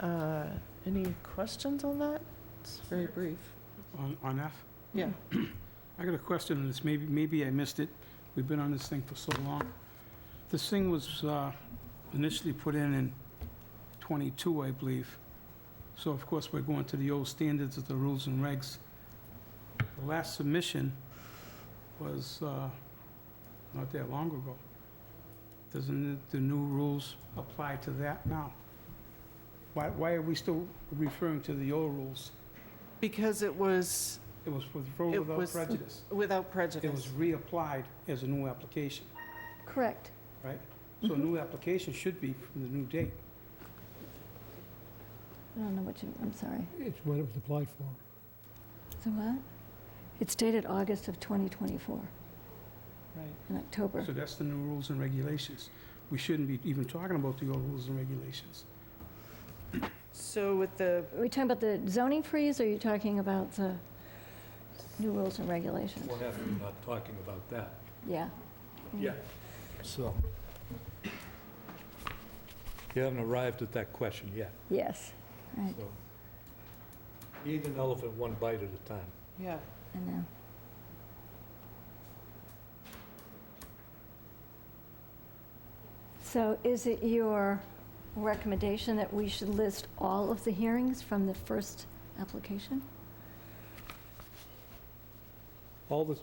Uh, Any questions on that? It's very brief. On, on F, Yeah. I got a question, and it's maybe, maybe I missed it. We've been on this thing for so long. This thing was uh, initially put in in 22, I believe. So of course, we're going to the old standards of the rules and regs. The last submission was uh, not that long ago. Doesn't the- the new rules apply to that now? Why, why are we still referring to the old rules? Because it was It was with vote It without was- prejudice. without It was prejudice. reapplied as a new application, Correct. right? So a new application should be from the new date. I don't know what you, I'm sorry. It's what it was applied for. So what? It's dated August of 2024, Right. in October. So that's the new rules and regulations. We shouldn't be even talking about the old rules and regulations. So with the, Are we talking about the zoning freeze, or are you talking about the new rules and regulations? We're definitely not talking about that. Yeah. Yeah. So. You haven't arrived at that question yet, Yes, so. right, Eat an elephant one bite at a time. yeah, I know. So is it your recommendation that we should list all of the hearings from the first application? All this,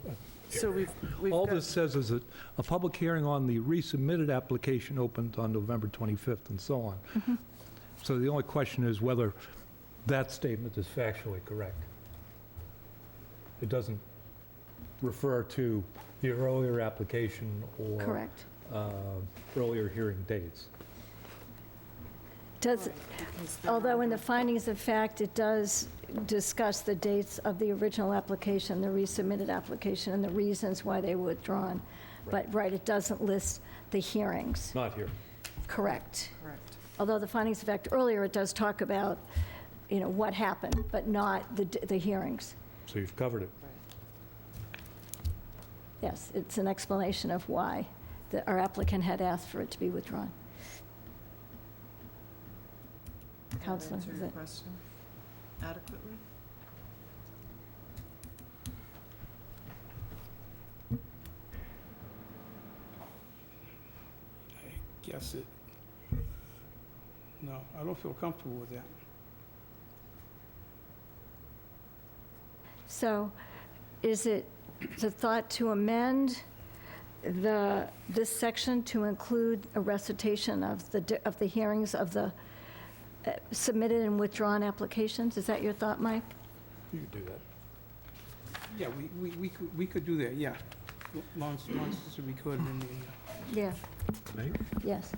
so we've, we've all got- this says is that a public hearing on the resubmitted application opened on November 25th and so on. Mm-hmm. Mhm. So the only question is whether that statement is factually correct. It doesn't refer to the earlier application or. Correct. uh, earlier hearing dates. Does, because they're Although in the under- findings of fact, it does discuss the dates of the original application, the resubmitted application, and the reasons why they were withdrawn. But, right, it doesn't list the hearings, Not here. correct. Correct. Although the findings of fact earlier, it does talk about, you know, what happened, but not the, d- the hearings. So you've covered it. Yes, it's an explanation of why the- our applicant had asked for it to be withdrawn. Did that Counselor, Answer is your it- question adequately? I guess it, no, I don't feel comfortable with that. So is it the thought to amend the, this section to include a recitation of the, di- of the hearings of the uh, submitted and withdrawn applications? Is that your thought, Mike? You can do that. Yeah, we, we, we could, we could do that, yeah. L- Long, s- long as we could in the, uh, Yeah. Yes.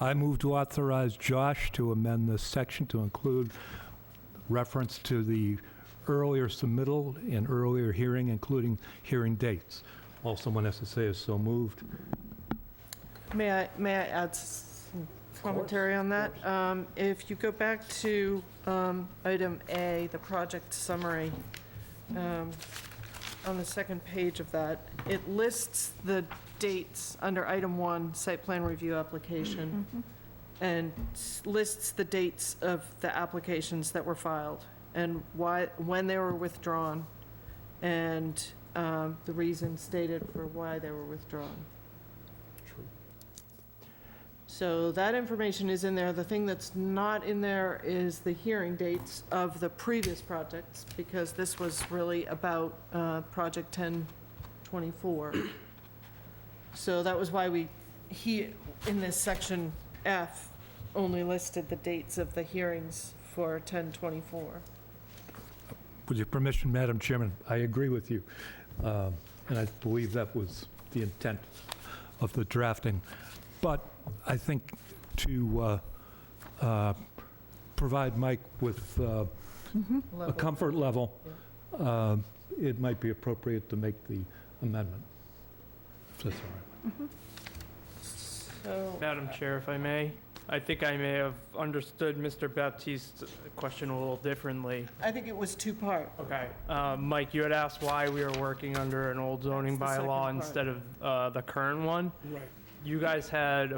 I move to authorize Josh to amend this section to include reference to the earlier submittal and earlier hearing, including hearing dates. All someone has to say is so moved. May I, may I add s- some commentary on that? Um, If you go back to um, item A, the project summary, um, on the second page of that, it lists the dates under item one, site plan review application, Mm-hmm. and s- lists the dates of the applications that were filed, and why, when they were withdrawn, and um, the reason stated for why they were withdrawn. So that information is in there. The thing that's not in there is the hearing dates of the previous projects, because this was really about uh, Project 1024. So that was why we, he, in this section F, only listed the dates of the hearings for 1024. With your permission, Madam Chairman, I agree with you. Um, And I believe that was the intent of the drafting. But I think to uh, uh, provide Mike with uh, a Level. comfort level, um, it might be appropriate to make the amendment. If that's all right. So, Madam Chair, if I may, I think I may have understood Mr. Baptiste's question a little differently. I think it was two-part. Okay, uh, Mike, you had asked why we were working under an old zoning That's the second bylaw part. instead of uh, the current one. right. You guys had